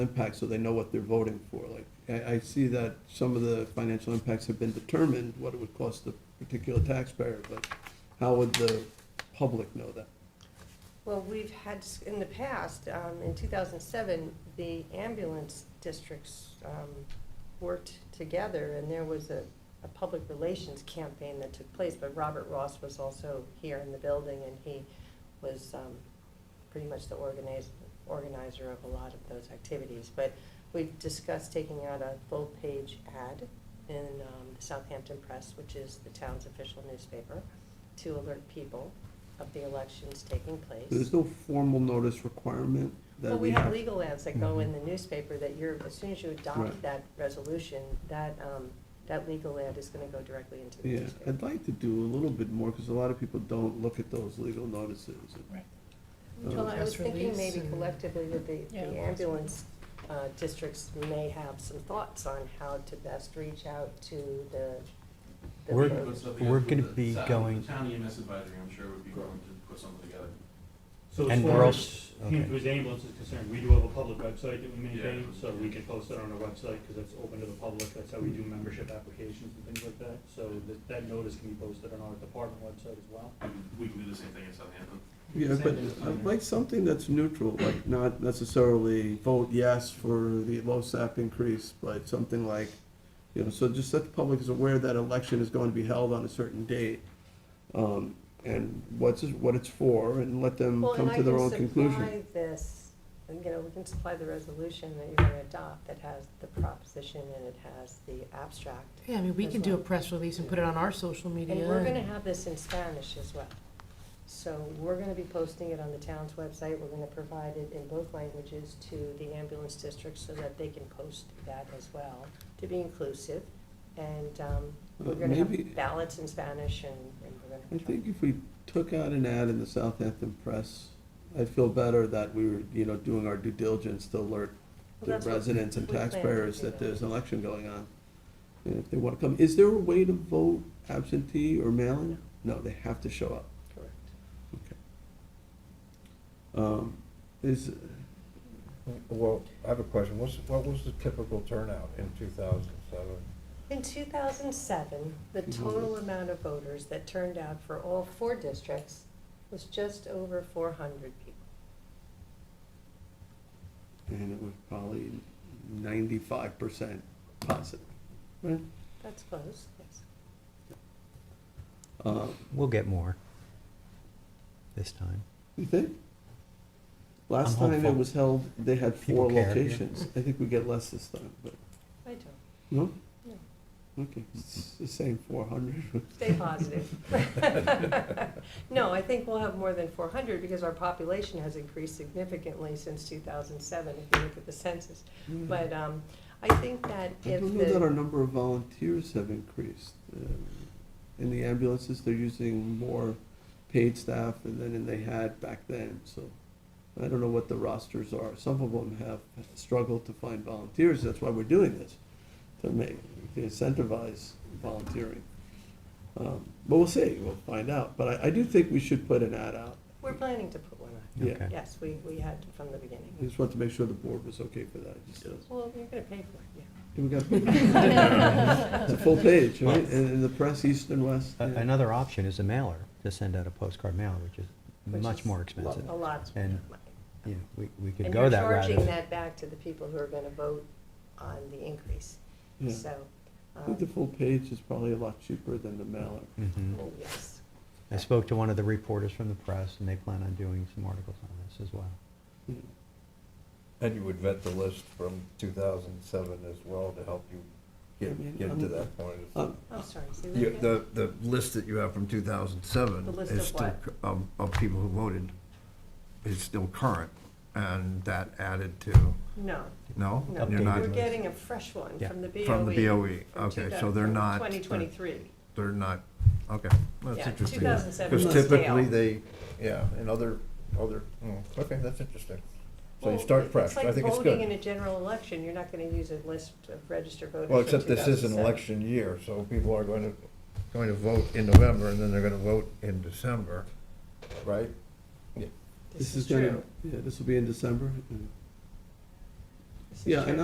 impact, so they know what they're voting for. Like, I, I see that some of the financial impacts have been determined, what it would cost the particular taxpayer, but how would the public know that? Well, we've had, s- in the past, um, in 2007, the ambulance districts um, worked together, and there was a, a public relations campaign that took place, but Robert Ross was also here in the building, and he was um, pretty much the organiz- organizer of a lot of those activities. But we've discussed taking out a full-page ad in um, the Southampton Press, which is the town's official newspaper, to alert people of the elections taking place. There's no formal notice requirement Well, that we we have have. Mm-hmm. legal ads that go in Mhm. the newspaper that you're, as soon as you Right. adopt that resolution, that, um, that legal ad is gonna go directly into the Yeah, newspaper. I'd like to do a little bit more, because a lot of people don't look at those legal notices. um, Right. Well, I was Press thinking release maybe and- collectively that the, Yeah. the ambulance, uh, districts may have some thoughts on how to best reach out to the. the We're- Put voters. something we're up with gonna the be town- going- The town EMS advisory, I'm sure would be willing to put something together. So as And we're far as also, okay, Hampshire Ambulance is concerned, we do have a public website that we maintain, Yeah. so we can post it on our website, because that's open to the public, that's how we do membership applications and things like that. So that, that notice can be posted on our department website as well. We can- We can do the same thing in Southampton. Yeah, but I'd like something that's neutral, like not necessarily vote yes for the LoSAP increase, but something like, you know, so just that the public is aware that election is going to be held on a certain date. um, And what's, it- what it's for, and let them Well, come and I to their can own conclusion. supply this, and, you know, we can supply the resolution that you're gonna adopt that has the proposition and it has the abstract. Yeah, I mean, we as can do a well. press release and put it on our social media. And we're and- gonna have this in Spanish as well. So we're gonna be posting it on the town's website, we're gonna provide it in both languages to the ambulance districts so that they can post that as well, to be inclusive. And, um, we're Uh, gonna maybe- have ballots in Spanish and, and we're gonna. I think if we took out an ad in the Southampton Press, I'd feel better that we were, you know, doing our due diligence to alert Well, the that's what residents and we plan to taxpayers do. that there's an election going on. And if they want to come, is there a way to vote absentee or mail-in? No, they have to show up. Correct. Um, Is, Well, I have a question. What's, what was the typical turnout in two thousand seven? In 2007, the Mm-hmm. total amount of voters that turned out for all four districts was just over 400 people. and it was probably ninety-five percent positive, right? That's close, yes. Uh, we'll get more this time. You think? Last I'm time it hopeful. was held, they had four People care, yeah. locations. I think we get less this time, but, I don't. no? No. Okay, it's the same four hundred. Stay positive. No, I think we'll have more than 400 because our population has increased significantly since 2007, if you look at the census. Mm-hmm. But um, I think that I if don't know that our the, number of volunteers have increased. Um, In the ambulances, they're using more paid staff than than they had back then, so I don't know what the rosters are. Some of them have struggled to find volunteers, that's why we're doing this, to make, to incentivize volunteering. Um, But we'll see, we'll find out, but I, I do think we should put an ad out. we're planning to put one on. Yeah. Okay. Yes, we, we had from the beginning. I just wanted to make sure the board was okay for that, just, uh, Well, you're going to pay for we got, it, yeah. it's a full page, right, in in the press, east and west. A- yeah. Another option is a mailer, to send out a postcard mailer, which is Which much is more expensive. A lot. of And- money. Yeah, we, we could And go you're that route. charging if- that back to the people who are gonna vote on the increase, Yeah. so, I think the um, full page is probably a lot cheaper than the mailer. Mhm. oh, yes. I spoke to one of the reporters from the press, and they plan on doing some articles on this as well. And you would vet the list from two thousand seven as well to help you I get, mean, get to I'm- that point. Um, I'm Oh, sorry, say that You- again? The, the list that you have from two thousand seven The list is of still, what? cu- um, of people who voted, is still current. And that added to, No, no? no, You're not we're getting a fresh one Yeah. from the E BOE. From the BOE, okay, so they're not. Twenty twenty-three, They're not, okay, that's Yeah, interesting. 2007 Because was stale. typically they, yeah, and other, other, mm, okay, that's interesting. So you Well, start fresh, I think it's It's like voting in good. a general election, you're not gonna use a list of registered voters Well, from except this is an 2007. election year, so people are going to, going to vote in November and then they're going to vote in December, right? This is true. Yeah, this will be in December. This is Yeah, true. and